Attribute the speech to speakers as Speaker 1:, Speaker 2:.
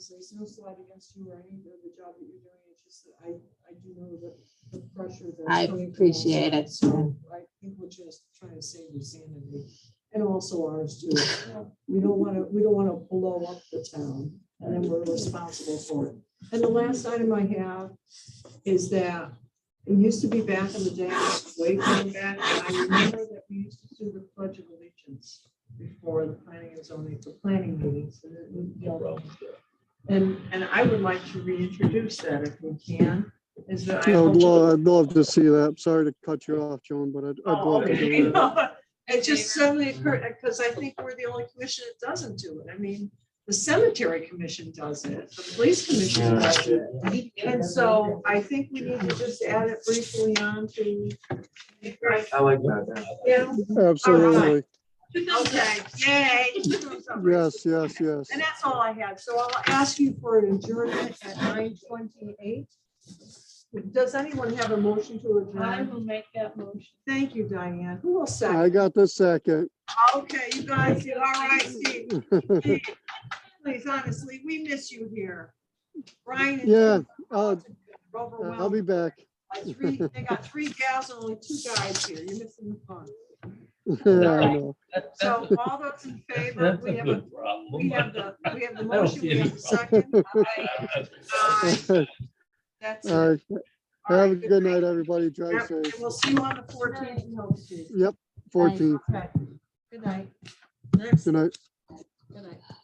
Speaker 1: So there's no slight against you or any of the job that you're doing, it's just that I, I do know that the pressure that's.
Speaker 2: I
Speaker 1: coming from all
Speaker 2: appreciate it.
Speaker 1: sides. So I think we're just trying to save your sanity and also ours too. We don't want to, we don't want to blow up the town and then we're responsible for it. And the last item I have is that it used to be back in the day, way back, I remember that we used to do the pledge of allegiance before the planning and zoning, the planning meetings. and it would be all and, and I would like to reintroduce that if we can, is that I.
Speaker 3: I would
Speaker 1: hope-
Speaker 3: love, I'd love to see that. Sorry to cut you off, Joan, but I'd, I'd
Speaker 1: Oh,
Speaker 3: love to
Speaker 1: okay.
Speaker 3: do that.
Speaker 1: It just suddenly occurred, because I think we're the only commission that doesn't do it. I mean, the cemetery commission does it, the police commission does it. And so I think we need to just add it briefly on to.
Speaker 4: I like that.
Speaker 1: Yeah,
Speaker 3: Absolutely.
Speaker 1: okay, yay.
Speaker 3: Yes, yes, yes.
Speaker 1: And that's all I had. So I'll ask you for an adjournment at nine twenty-eight. Does anyone have a motion to
Speaker 5: I
Speaker 1: adjourn?
Speaker 5: will make that motion.
Speaker 1: Thank you, Diane. Who will
Speaker 3: I
Speaker 1: second?
Speaker 3: got the second.
Speaker 1: Okay, you guys, did all right, Steve. Please, honestly, we miss you here. Brian. and
Speaker 3: Yeah,
Speaker 1: Steve are
Speaker 3: I'll- I'll
Speaker 1: Overwhelmed
Speaker 3: be back.
Speaker 1: by three, they got three gals and only two guys here. You're missing the fun.
Speaker 3: I know.
Speaker 6: That-
Speaker 1: So
Speaker 6: that's a-
Speaker 1: all those in favor,
Speaker 6: That's
Speaker 1: we
Speaker 6: a
Speaker 1: have, a-
Speaker 6: good problem.
Speaker 1: we have the, we have the
Speaker 6: I don't
Speaker 1: motion,
Speaker 6: see
Speaker 1: we have
Speaker 6: any
Speaker 1: the second. Uh,
Speaker 6: I-
Speaker 1: That's it.
Speaker 3: All right.
Speaker 1: All right,
Speaker 3: Have a good night, everybody. Drive
Speaker 1: Yep, And
Speaker 3: safe.
Speaker 1: we'll see you on the fourteenth, no, Steve.
Speaker 3: Yep, 14.
Speaker 1: Okay, good night. Next,
Speaker 3: Good night.
Speaker 1: Good night.